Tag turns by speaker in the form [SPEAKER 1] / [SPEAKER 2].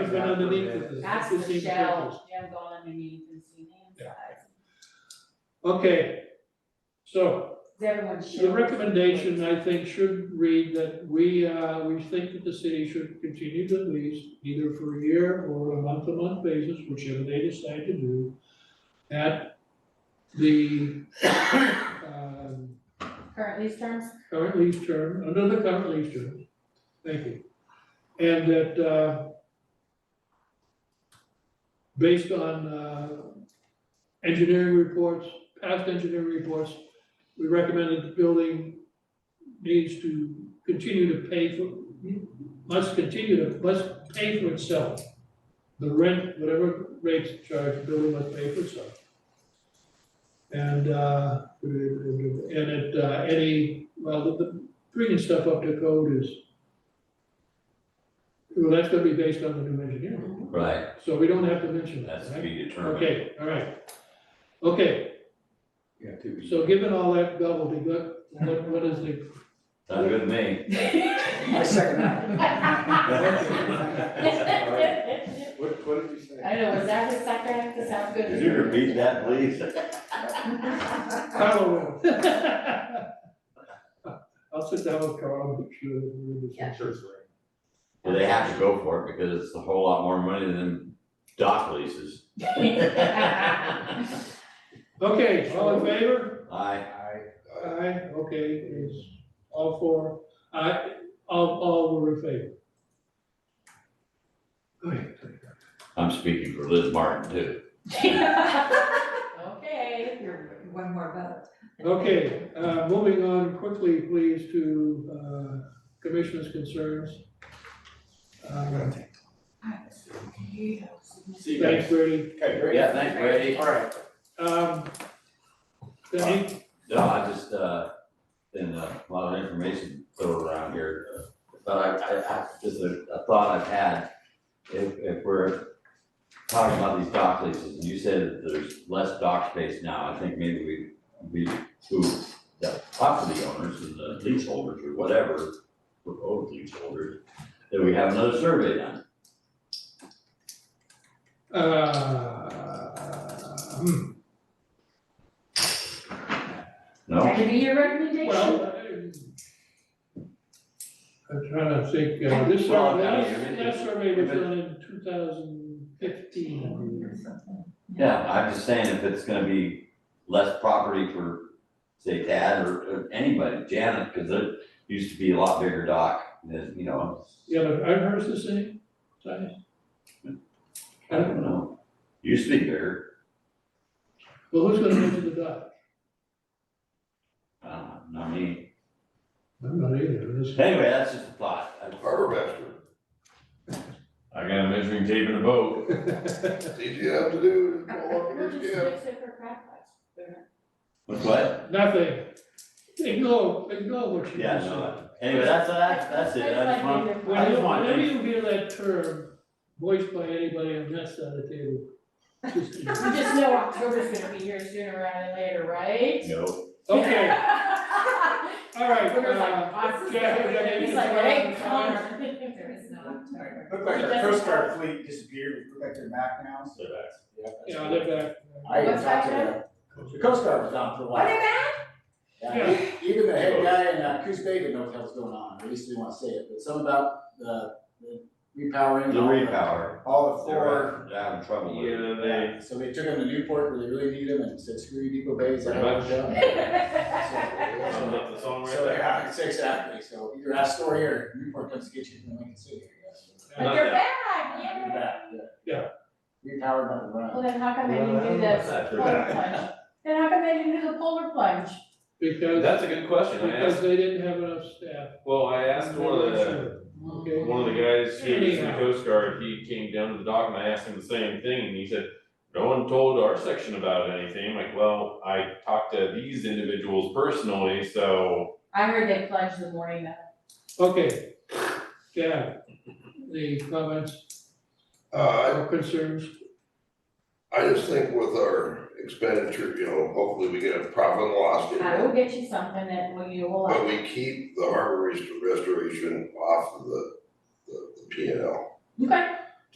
[SPEAKER 1] Jim went underneath it. It's
[SPEAKER 2] Ask
[SPEAKER 1] the same purpose.
[SPEAKER 2] Michelle, Jim gone underneath and seen the
[SPEAKER 1] Yeah.
[SPEAKER 2] inside.
[SPEAKER 1] Okay. So
[SPEAKER 2] Is everyone sure?
[SPEAKER 1] the recommendation, I think, should read that we, uh, we think that the city should continue to lease either for a year or a month-to-month basis, whichever they decide to do, at the, um,
[SPEAKER 2] Current lease terms?
[SPEAKER 1] current lease term, under the current lease term, thank you. And that, uh, based on, uh, engineering reports, past engineering reports, we recommend that the building needs to continue to pay for, must continue to, must pay for itself. The rent, whatever rates charged, the building must pay for itself. And, uh, and it, uh, any well, the, the bringing stuff up to code is, well, that's gonna be based on the new engineering,
[SPEAKER 3] Right,
[SPEAKER 1] so we don't have to mention that,
[SPEAKER 3] that's to
[SPEAKER 1] right?
[SPEAKER 3] be determined.
[SPEAKER 1] Okay, all right. Okay,
[SPEAKER 4] Yeah, to be.
[SPEAKER 1] so given all that gobbledygook, what, what is the,
[SPEAKER 3] Sound good to me.
[SPEAKER 4] I second
[SPEAKER 2] I
[SPEAKER 4] What, what did you say?
[SPEAKER 2] know, is that a sucker act? That sounds good.
[SPEAKER 3] Could you repeat that, please?
[SPEAKER 1] Carlo will. I'll sit down with Carl, and make sure that we're in
[SPEAKER 2] Yeah.
[SPEAKER 1] this.
[SPEAKER 4] Sure, it's right.
[SPEAKER 3] Well, they have to go for it because it's a whole lot more money than dock leases. Aye,
[SPEAKER 1] Okay, all in favor?
[SPEAKER 4] I,
[SPEAKER 1] Aye, okay, it's all four, aye, all, all were in favor. Go ahead.
[SPEAKER 3] I'm speaking for Liz Martin too.
[SPEAKER 2] Okay.
[SPEAKER 5] Here, one more vote.
[SPEAKER 1] Okay, uh, moving on quickly, please, to, uh, commissioners' concerns. Uh,
[SPEAKER 4] see you guys.
[SPEAKER 1] Thanks, Brady.
[SPEAKER 4] Okay, great.
[SPEAKER 3] Yeah, thanks, Brady.
[SPEAKER 4] All right,
[SPEAKER 1] Um, Danny,
[SPEAKER 3] No, I just, uh, been uh, a lot of information thrown around here, uh, but I, I, I, just a, a thought I've had. If, if we're talking about these dock leases, and you said that there's less dock space now, I think maybe we, we, who, the property owners and the leaseholders or whatever, proposed leaseholders, that we have another survey done.
[SPEAKER 1] uh, hmm,
[SPEAKER 3] No,
[SPEAKER 2] That could be your recommendation.
[SPEAKER 1] well, I- I'm trying to think, uh, this
[SPEAKER 3] Well,
[SPEAKER 1] survey,
[SPEAKER 3] I mean,
[SPEAKER 1] that-
[SPEAKER 3] it's-
[SPEAKER 1] that survey was
[SPEAKER 3] if it-
[SPEAKER 1] done in two thousand fifteen.
[SPEAKER 3] yeah, I'm just saying if it's gonna be less property for, say, Tad or, or anybody, Janet, cause there used to be a lot bigger dock than, you know.
[SPEAKER 1] Yeah, but aren't hers the same size?
[SPEAKER 3] I don't know, used to be bigger,
[SPEAKER 1] Well, who's gonna measure the dock?
[SPEAKER 3] I don't know, uh, not me.
[SPEAKER 1] I'm not either, this,
[SPEAKER 3] Anyway, that's just a thought. I-
[SPEAKER 6] Harbor master,
[SPEAKER 7] I got a measuring tape and a boat.
[SPEAKER 6] it's easy enough to do, just go up
[SPEAKER 2] We're
[SPEAKER 6] in
[SPEAKER 2] just
[SPEAKER 6] this camp.
[SPEAKER 2] fixing for crack pipes.
[SPEAKER 3] What's What?
[SPEAKER 1] nothing. Ignore, ignore what you
[SPEAKER 3] Yeah,
[SPEAKER 1] just said.
[SPEAKER 3] no, anyway, that's, that's, that's it, I just want, I
[SPEAKER 1] When you,
[SPEAKER 3] just want,
[SPEAKER 1] whenever
[SPEAKER 3] to-
[SPEAKER 1] you hear that term voiced by anybody on that side of the table, just ignore.
[SPEAKER 2] We just know October's gonna be here sooner rather than later, right?
[SPEAKER 3] no,
[SPEAKER 1] Okay, all right,
[SPEAKER 2] We're just like,
[SPEAKER 1] uh,
[SPEAKER 2] "Ah,
[SPEAKER 1] Jack, we got anything
[SPEAKER 2] He's like,
[SPEAKER 1] to add?
[SPEAKER 2] hey, Connor.
[SPEAKER 5] There is no October.
[SPEAKER 4] looked like our Coast Guard fleet disappeared, we look like they're back now, so that's, yeah. that's
[SPEAKER 1] Yeah,
[SPEAKER 4] good.
[SPEAKER 1] they're back.
[SPEAKER 4] I even
[SPEAKER 2] What's
[SPEAKER 4] talked to
[SPEAKER 2] that,
[SPEAKER 4] the, the Coast Guard was down for a
[SPEAKER 2] What
[SPEAKER 4] while.
[SPEAKER 2] about?
[SPEAKER 1] Yeah.
[SPEAKER 4] Yeah, e- even the head guy in uh, Coos Bay didn't know what the hell's going on, or at least didn't wanna say it, but some about the, the repowering.
[SPEAKER 3] the
[SPEAKER 4] all
[SPEAKER 3] repower,
[SPEAKER 4] All the four.
[SPEAKER 3] they're having trouble with it.
[SPEAKER 4] Yeah, so they took them to Newport where they really need them and said, screw you, Depot Bay, is that
[SPEAKER 7] Pretty
[SPEAKER 4] how it's
[SPEAKER 7] much.
[SPEAKER 4] done?
[SPEAKER 7] Sums up the song right
[SPEAKER 4] So,
[SPEAKER 7] there.
[SPEAKER 4] yeah, it's exactly, so either Astoria or Newport comes to get you from Lincoln City, I guess.
[SPEAKER 2] But you're back, yeah.
[SPEAKER 1] Yeah.
[SPEAKER 4] We powered by the
[SPEAKER 2] Well,
[SPEAKER 4] run.
[SPEAKER 2] then how come they didn't do this
[SPEAKER 7] Well,
[SPEAKER 2] polar plunge? Then how come they didn't do the polar plunge?
[SPEAKER 1] Because,
[SPEAKER 7] That's a good question, I
[SPEAKER 1] because
[SPEAKER 7] asked,
[SPEAKER 1] they didn't have enough staff.
[SPEAKER 7] well, I asked one of the,
[SPEAKER 1] Okay.
[SPEAKER 7] one of the guys who was in the Coast Guard, he came down to the dock and I asked him the same thing, and he said, no one told our section about anything, I'm like, well, I talked to these individuals personally, so.
[SPEAKER 2] I heard they plunged the morning of.
[SPEAKER 1] Okay, Jack, the comments
[SPEAKER 6] Uh,
[SPEAKER 1] or concerns?
[SPEAKER 6] I I just think with our expenditure, you know, hopefully we get a profit and loss
[SPEAKER 2] I will
[SPEAKER 6] statement.
[SPEAKER 2] get you something that will you will
[SPEAKER 6] But
[SPEAKER 2] like.
[SPEAKER 6] we keep the harbor rest- restoration off of the, the, the P and L.
[SPEAKER 2] Okay,